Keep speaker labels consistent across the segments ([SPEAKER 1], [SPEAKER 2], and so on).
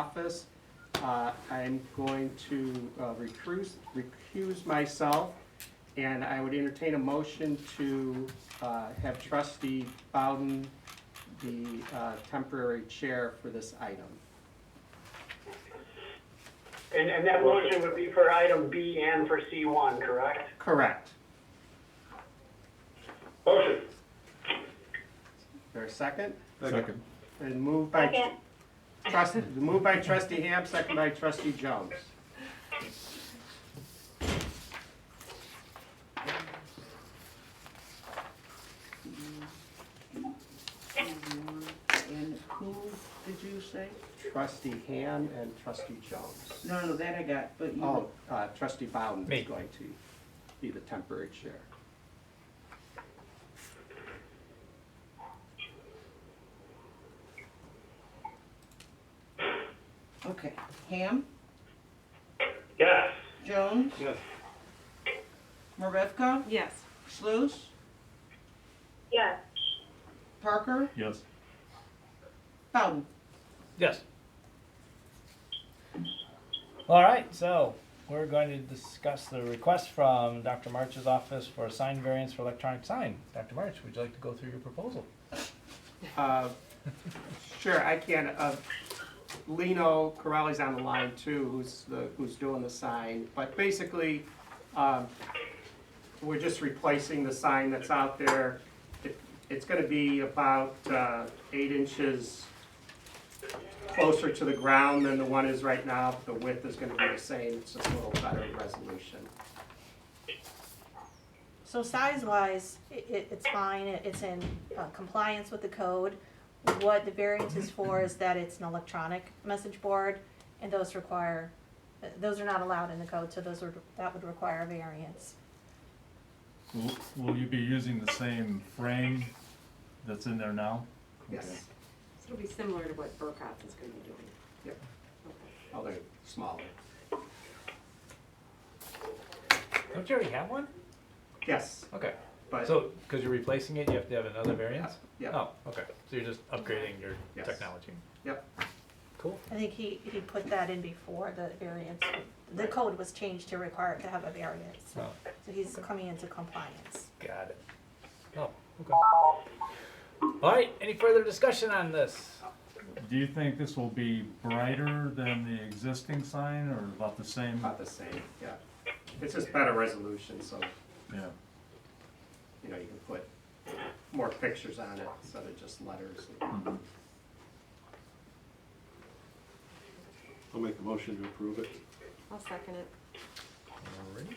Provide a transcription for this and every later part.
[SPEAKER 1] office. Uh, I'm going to uh, recuse, recuse myself, and I would entertain a motion to uh, have trustee Bowden the uh, temporary chair for this item.
[SPEAKER 2] And, and that motion would be for item B and for C1, correct?
[SPEAKER 1] Correct.
[SPEAKER 2] Motion.
[SPEAKER 1] Is there a second?
[SPEAKER 3] Second.
[SPEAKER 1] And moved by
[SPEAKER 4] Second.
[SPEAKER 1] trustee, moved by trustee Ham, second by trustee Jones.
[SPEAKER 5] And who did you say?
[SPEAKER 1] Trustee Ham and trustee Jones.
[SPEAKER 5] No, no, that I got, but you.
[SPEAKER 1] Oh, uh, trustee Bowden
[SPEAKER 6] Me.
[SPEAKER 1] is going to be the temporary chair.
[SPEAKER 5] Okay, Ham,
[SPEAKER 2] Yes.
[SPEAKER 5] Jones,
[SPEAKER 2] Yes.
[SPEAKER 5] Marevka,
[SPEAKER 7] Yes.
[SPEAKER 5] Sluse,
[SPEAKER 4] Yes,
[SPEAKER 5] Parker,
[SPEAKER 3] Yes.
[SPEAKER 5] Bowden.
[SPEAKER 6] Yes. All right, so we're going to discuss the request from Dr. March's office for a sign variance for electronic sign. Dr. March, would you like to go through your proposal?
[SPEAKER 1] Uh, Sure, I can. Uh, Lino Corelli's on the line too, who's the, who's doing the sign. But basically, um, we're just replacing the sign that's out there. It- It's gonna be about uh, eight inches closer to the ground than the one is right now. The width is gonna be the same, it's just a little better resolution.
[SPEAKER 8] So size-wise, i- i it's fine, It- it's in uh, compliance with the code. What the variance is for is that it's an electronic message board, and those require, th- those are not allowed in the code, so those would, that would require a variance.
[SPEAKER 3] Will, will you be using the same frame that's in there now?
[SPEAKER 1] Yes,
[SPEAKER 7] So it'll be similar to what Burkott's is gonna be doing.
[SPEAKER 1] Yep.
[SPEAKER 7] Okay.
[SPEAKER 1] although smaller.
[SPEAKER 6] Don't you already have one?
[SPEAKER 1] Yes,
[SPEAKER 6] Okay,
[SPEAKER 1] but,
[SPEAKER 6] so, because you're replacing it, you have to have another variance?
[SPEAKER 1] yeah,
[SPEAKER 6] Oh, okay, so you're just upgrading your
[SPEAKER 1] Yes.
[SPEAKER 6] technology.
[SPEAKER 1] yep,
[SPEAKER 6] Cool.
[SPEAKER 8] I think he, he put that in before the variance, the
[SPEAKER 1] Right.
[SPEAKER 8] code was changed to require it to have a variance.
[SPEAKER 6] Oh,
[SPEAKER 8] So he's coming into compliance.
[SPEAKER 6] got it. Oh, okay. All right, any further discussion on this?
[SPEAKER 3] Do you think this will be brighter than the existing sign or about the same?
[SPEAKER 1] about the same, yeah. It's just better resolution, so
[SPEAKER 3] Yeah,
[SPEAKER 1] you know, you can put more pictures on it instead of just letters.
[SPEAKER 3] Mm-hmm.
[SPEAKER 9] I'll make a motion to approve it.
[SPEAKER 7] I'll second it.
[SPEAKER 6] Alrighty.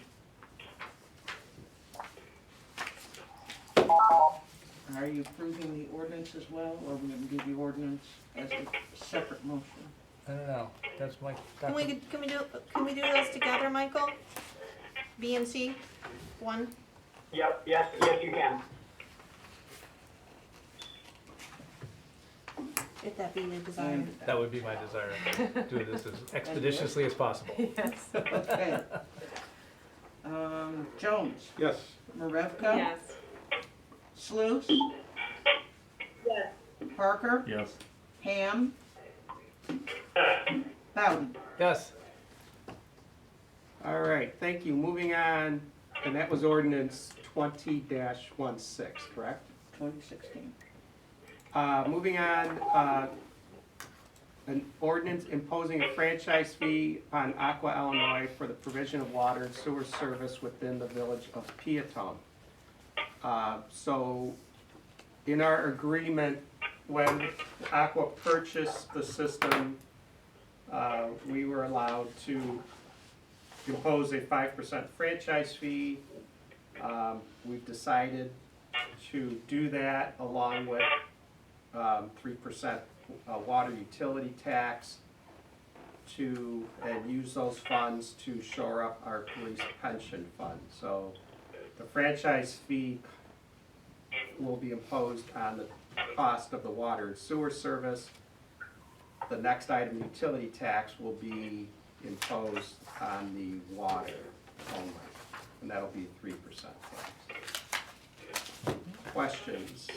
[SPEAKER 5] Are you approving the ordinance as well, or we can do the ordinance as a separate motion?
[SPEAKER 6] I don't know, that's my.
[SPEAKER 8] Can we,
[SPEAKER 6] Dr.
[SPEAKER 8] can we do, can we do those together, Michael? B and C, one?
[SPEAKER 2] Yep, yes, yes, you can.
[SPEAKER 8] If that be your desire.
[SPEAKER 6] That would be my desire, do this as expeditiously as possible.
[SPEAKER 7] Yes.
[SPEAKER 5] Okay. Um, Jones,
[SPEAKER 9] Yes.
[SPEAKER 5] Marevka.
[SPEAKER 7] Yes.
[SPEAKER 5] Sluse,
[SPEAKER 4] yes,
[SPEAKER 5] Parker,
[SPEAKER 3] yes.
[SPEAKER 5] Ham, Bowden.
[SPEAKER 6] Yes,
[SPEAKER 1] All right, thank you. Moving on, and that was ordinance twenty 16 correct?
[SPEAKER 5] Twenty sixteen.
[SPEAKER 1] Uh, moving on, uh, an ordinance imposing a franchise fee on Aqua Illinois for the provision of water and sewer service within the village of Peatone. Uh, so, in our agreement, when Aqua purchased the system, uh, we were allowed to impose a five percent franchise fee. Um, we've decided to do that along with um, three percent uh, water utility tax to, and use those funds to shore up our police pension fund. So the franchise fee will be imposed on the cost of the water and sewer service. The next item, utility tax, will be imposed on the water only, and that'll be three percent tax. Questions?